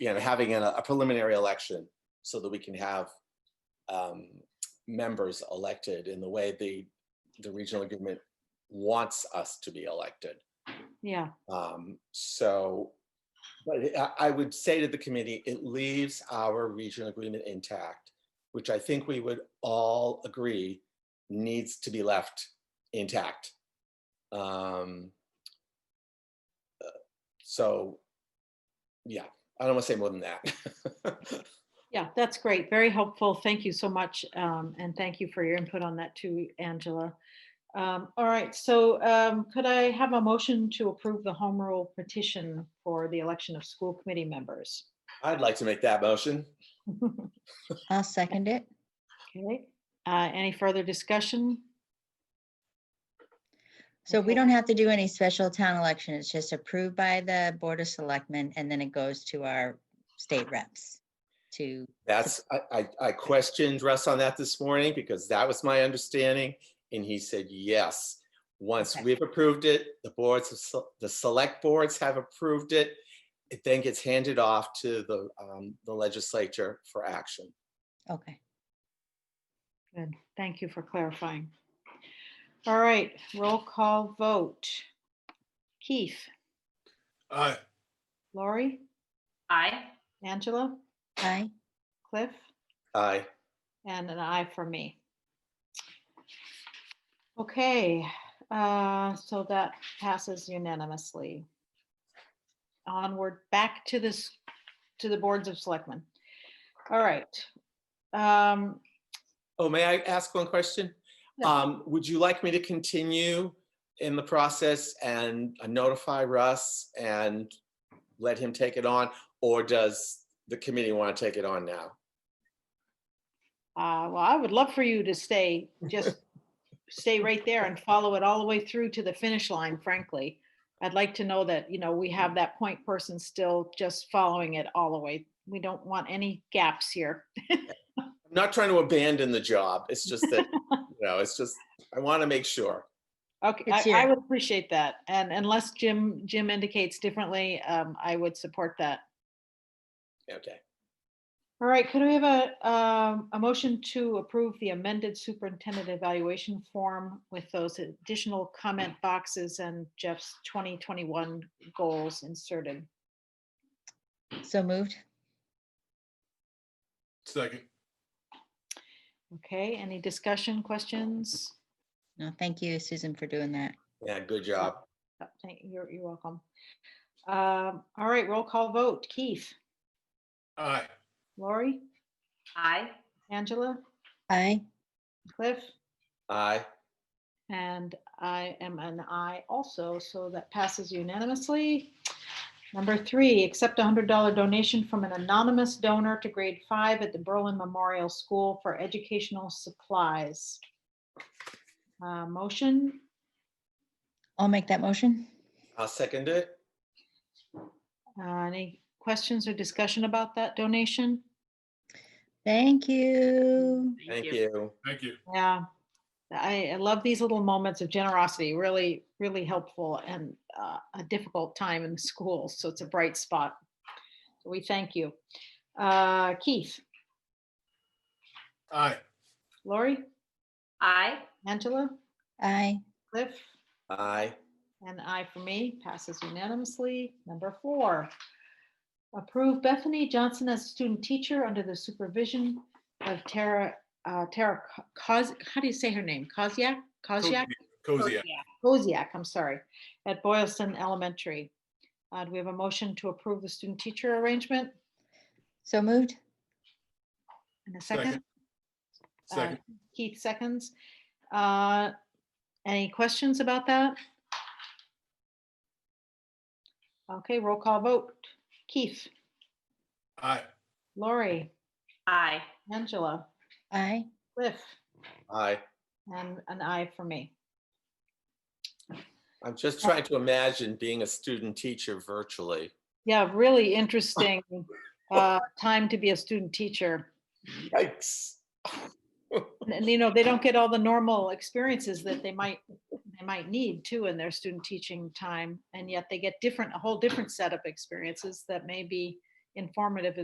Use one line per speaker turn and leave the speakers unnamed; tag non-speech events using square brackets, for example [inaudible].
you know, having a a preliminary election so that we can have um, members elected in the way the, the regional government wants us to be elected.
Yeah,
Um, so, but I, I would say to the committee, it leaves our regional agreement intact, which I think we would all agree needs to be left intact. Um, uh, so, yeah, I don't want to say more than that. [laughs]
yeah, that's great. Very helpful. Thank you so much. um, And thank you for your input on that too, Angela. Um, All right, so um, could I have a motion to approve the home rule petition for the election of school committee members? [laughs]
I'd like to make that motion.
I'll second it.
Okay, uh, any further discussion?
So we
Okay.
don't have to do any special town election. It's just approved by the Board of Selectmen and then it goes to our state reps to,
That's, I, I, I questioned Russ on that this morning because that was my understanding. And he said, yes. Once
Okay.
we've approved it, the boards, of se- the select boards have approved it. It then gets handed off to the, um, the legislature for action.
okay.
Good, thank you for clarifying. All right, roll call vote. Keith,
Aye.
Laurie,
Aye.
Angela,
Aye,
Cliff?
Aye.
And an eye for me. Okay, uh, so that passes unanimously. Onward, back to this, to the boards of selectmen. All right. Um,
Oh, may I ask one question?
Yeah.
Um, would you like me to continue in the process and uh, notify Russ and let him take it on? Or does the committee want to take it on now?
uh, well, I would love for you to stay, just stay right there and follow it all the way through to the finish line, frankly. I'd like to know that, you know, we have that point person still just following it all the way. We don't want any gaps here.
I'm not trying to abandon the job. It's just that, you know, it's just, I want to make sure.
Okay,
It's
I, I
here.
would appreciate that. And unless Jim, Jim indicates differently, um, I would support that.
Okay.
All right, could we have a, um, a motion to approve the amended superintendent evaluation form with those additional comment boxes and Jeff's twenty twenty-one goals inserted?
so moved.
Second.
Okay, any discussion, questions?
No, thank you, Susan, for doing that.
Yeah, good job.
Oh, thank- You're, you're welcome. Um, all right, roll call vote. Keith,
Aye.
Lori,
Aye.
Angela,
Aye,
Cliff?
Aye.
And I am an I also, so that passes unanimously. Number three, accept a hundred dollar donation from an anonymous donor to grade five at the Berlin Memorial School for Educational Supplies. Uh, Motion,
I'll make that motion.
I'll second it.
Uh, any questions or discussion about that donation?
Thank you.
Thank you.
Thank you.
Yeah, I, I love these little moments of generosity, really, really helpful and uh, a difficult time in the school. So it's a bright spot. So We thank you. Uh, Keith,
Aye.
Lori,
Aye.
Angela,
Aye,
Cliff,
Aye.
and I for me passes unanimously. Number four, approve Bethany Johnson as student teacher under the supervision of Tara, uh, Tara Koz, how do you say her name? Koziak? Koziak?
Cozy. aye.
Koziak, I'm sorry, at Boylston Elementary. Uh, Do we have a motion to approve the student teacher arrangement
so moved.
in a second?
Second. Second.
Uh, Keith seconds. Uh, Any questions about that? Okay, roll call vote. Keith,
Aye.
Lori,
Aye.
Angela,
Aye,
Cliff,
Aye.
and an I for me.
I'm just trying to imagine being a student teacher virtually.
Yeah, really interesting uh, time to be a student teacher.
Yikes.
And- And you know, they don't get all the normal experiences that they might, they might need too in their student teaching time. And yet they get different, a whole different set of experiences that may be informative as